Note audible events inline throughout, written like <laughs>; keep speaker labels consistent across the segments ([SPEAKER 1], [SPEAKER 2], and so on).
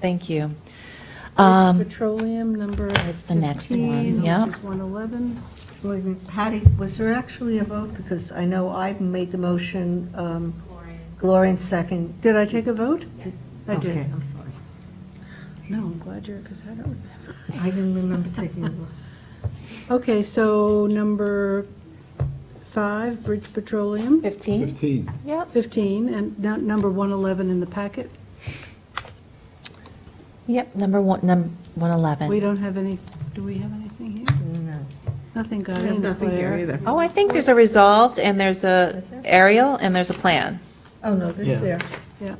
[SPEAKER 1] Thank you. Um,
[SPEAKER 2] Petroleum, number
[SPEAKER 1] That's the next one,
[SPEAKER 2] 15,
[SPEAKER 1] yep.
[SPEAKER 2] which is 111.
[SPEAKER 3] Wait a minute, Patty, was there actually a vote? Because I know I made the motion, um, Gloria second.
[SPEAKER 2] Did I take a vote? I did.
[SPEAKER 3] Okay, I'm sorry.
[SPEAKER 2] No, I'm glad you're, because I don't remember.
[SPEAKER 3] I didn't remember taking a vote.
[SPEAKER 2] Okay, so number five, Bridge Petroleum,
[SPEAKER 1] 15?
[SPEAKER 4] 15.
[SPEAKER 1] Yep.
[SPEAKER 2] 15, and nu- number 111 in the packet.
[SPEAKER 1] Yep, number one, num,
[SPEAKER 2] We
[SPEAKER 1] 111.
[SPEAKER 2] don't have any, do we have anything here?
[SPEAKER 3] No.
[SPEAKER 2] Nothing got in, Claire.
[SPEAKER 1] Oh, I think there's a resolved, and there's a
[SPEAKER 3] Is there?
[SPEAKER 1] aerial, and there's a plan.
[SPEAKER 3] Oh, no, this
[SPEAKER 5] Yeah.
[SPEAKER 3] there. <laughs>
[SPEAKER 2] Yeah.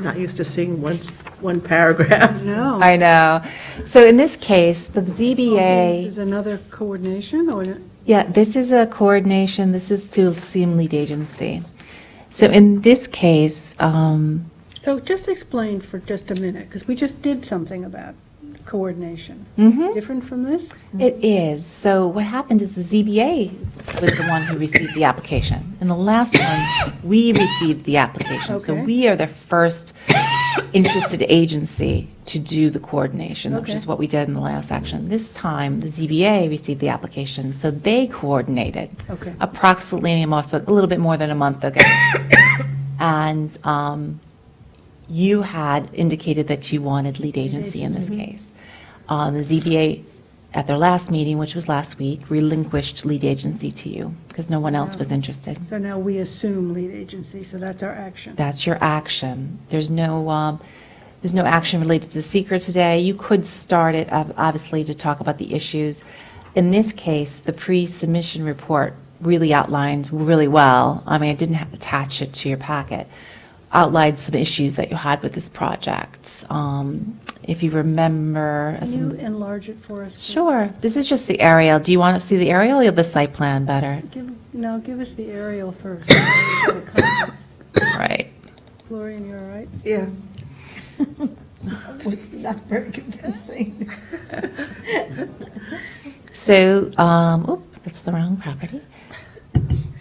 [SPEAKER 6] Not used to seeing one, one paragraph.
[SPEAKER 2] No.
[SPEAKER 1] I know. So in Oh. this case, the
[SPEAKER 2] Oh, This
[SPEAKER 1] ZBA,
[SPEAKER 2] is another coordination, or,
[SPEAKER 1] yeah, this is a coordination, this is to seem lead agency. So in this case, um,
[SPEAKER 2] so just explain for just a minute, because we just did something about coordination.
[SPEAKER 1] Mm-hmm.
[SPEAKER 2] Different from this? Mm-hmm.
[SPEAKER 1] It is. So what happened is the ZBA was the one who received the application. In the last one, we received the application. So
[SPEAKER 2] Okay.
[SPEAKER 1] we are the first interested agency to do the coordination, which is
[SPEAKER 2] Okay.
[SPEAKER 1] what we did in the last action. This time, the ZBA received the application, so they coordinated.
[SPEAKER 2] Okay.
[SPEAKER 1] Approximately a month, a little bit more than a month ago. And um, you had indicated that you wanted lead agency in this case. Uh, The ZBA, at their last meeting, which was last week, relinquished lead agency to you because no one else was interested.
[SPEAKER 2] So now we assume lead agency, so that's our action.
[SPEAKER 1] That's your action. There's no, um, there's no action related to seeker today. You could start it, ob- obviously, to talk about the issues. In this case, the pre-submission report really outlined really well. I mean, I didn't have attach it to your packet. Outlined some issues that you had with this project. Um, If you remember, as
[SPEAKER 2] Can you enlarge it for us? please?
[SPEAKER 1] Sure. This is just the aerial. Do you want to see the aerial or the site plan better?
[SPEAKER 2] Give, no, give us the aerial first. <coughs> so we get a context.
[SPEAKER 1] Right.
[SPEAKER 2] Gloria, you all right?
[SPEAKER 3] Yeah. It's not very convincing.
[SPEAKER 1] So, um, oop, that's the wrong property.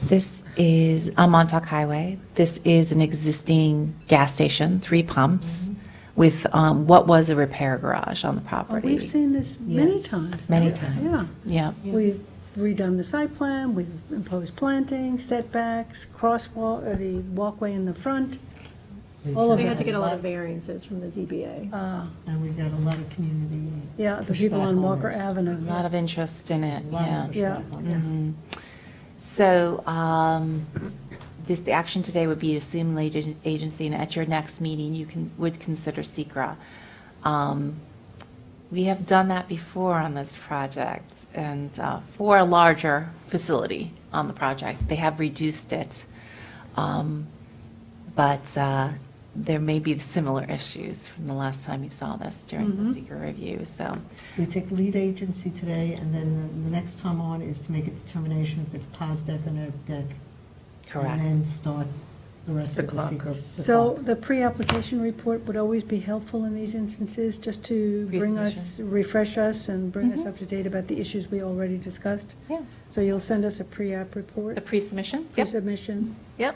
[SPEAKER 1] This is on Montauk Highway. This is an existing gas station, three pumps, with um, what was a repair garage on the
[SPEAKER 2] Mm-hmm. Oh, We've
[SPEAKER 1] property.
[SPEAKER 2] seen this many
[SPEAKER 3] Yes.
[SPEAKER 2] times.
[SPEAKER 1] Many
[SPEAKER 2] Yeah.
[SPEAKER 1] times. Yeah.
[SPEAKER 2] We've redone the site plan, we've imposed planting, setbacks, crosswalk, or the walkway in the front, all of
[SPEAKER 7] We had to
[SPEAKER 2] it.
[SPEAKER 7] get a lot of variances from the ZBA.
[SPEAKER 2] Uh,
[SPEAKER 3] And we got a lot of community.
[SPEAKER 2] Yeah, the people
[SPEAKER 3] Pushback
[SPEAKER 2] on Walker
[SPEAKER 3] owners.
[SPEAKER 2] Avenue.
[SPEAKER 1] A lot of interest in it, yeah.
[SPEAKER 2] Yeah.
[SPEAKER 1] So um, this, the action today would be to assume lead ag- agency, and at your next meeting, you can, would consider SECR. Um We have done that before on this project, and uh, for a larger facility on the project. They have reduced it, Um, but uh, there may be similar issues from the last time you saw this during the SECR review, so.
[SPEAKER 3] We take lead agency today, and then the next time on is to make a determination if it's POS deck or no deck. And then start the rest
[SPEAKER 6] The
[SPEAKER 3] of the
[SPEAKER 6] clock.
[SPEAKER 3] secret. the
[SPEAKER 2] So
[SPEAKER 3] clock.
[SPEAKER 2] the pre-application report would always be helpful in these instances, just to bring us, refresh us and bring us up to date about the issues we already discussed.
[SPEAKER 1] Yeah.
[SPEAKER 2] So you'll send us a pre-app
[SPEAKER 1] The
[SPEAKER 2] report,
[SPEAKER 1] pre-submission? Yep,
[SPEAKER 2] pre-submission.
[SPEAKER 1] yep.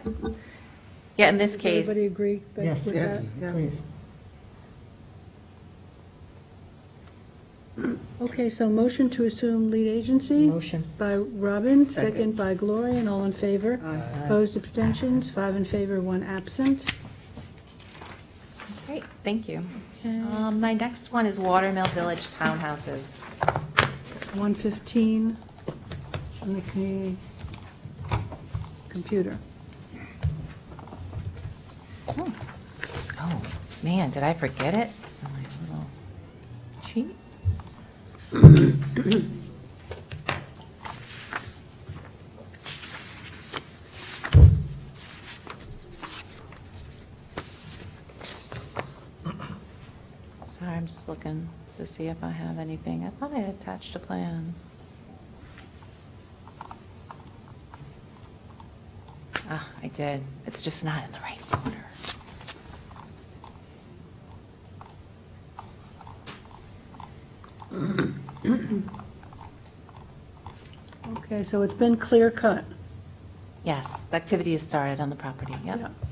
[SPEAKER 1] Yeah, in this
[SPEAKER 2] Does
[SPEAKER 1] case.
[SPEAKER 2] Everybody agree ba-
[SPEAKER 3] Yes,
[SPEAKER 2] with
[SPEAKER 3] yes,
[SPEAKER 2] that?
[SPEAKER 3] please.
[SPEAKER 2] Okay, so motion to assume lead agency
[SPEAKER 3] Motion.
[SPEAKER 2] by Robin, second by Gloria, and all in favor. Opposed, abstentions, five in favor, one absent.
[SPEAKER 1] Great, thank you.
[SPEAKER 2] Okay.
[SPEAKER 1] Um, My next one is Watermill Village Townhouses.
[SPEAKER 2] 115 on the community computer.
[SPEAKER 1] Oh, man, did I forget it? on My little sheet? Sorry, I'm just looking to see if I have anything. I thought I attached a plan. Ah, I did. It's just not in the right order.
[SPEAKER 2] Okay, so it's been clear cut.
[SPEAKER 1] Yes, the activity has started on the property, yep.
[SPEAKER 2] Yeah.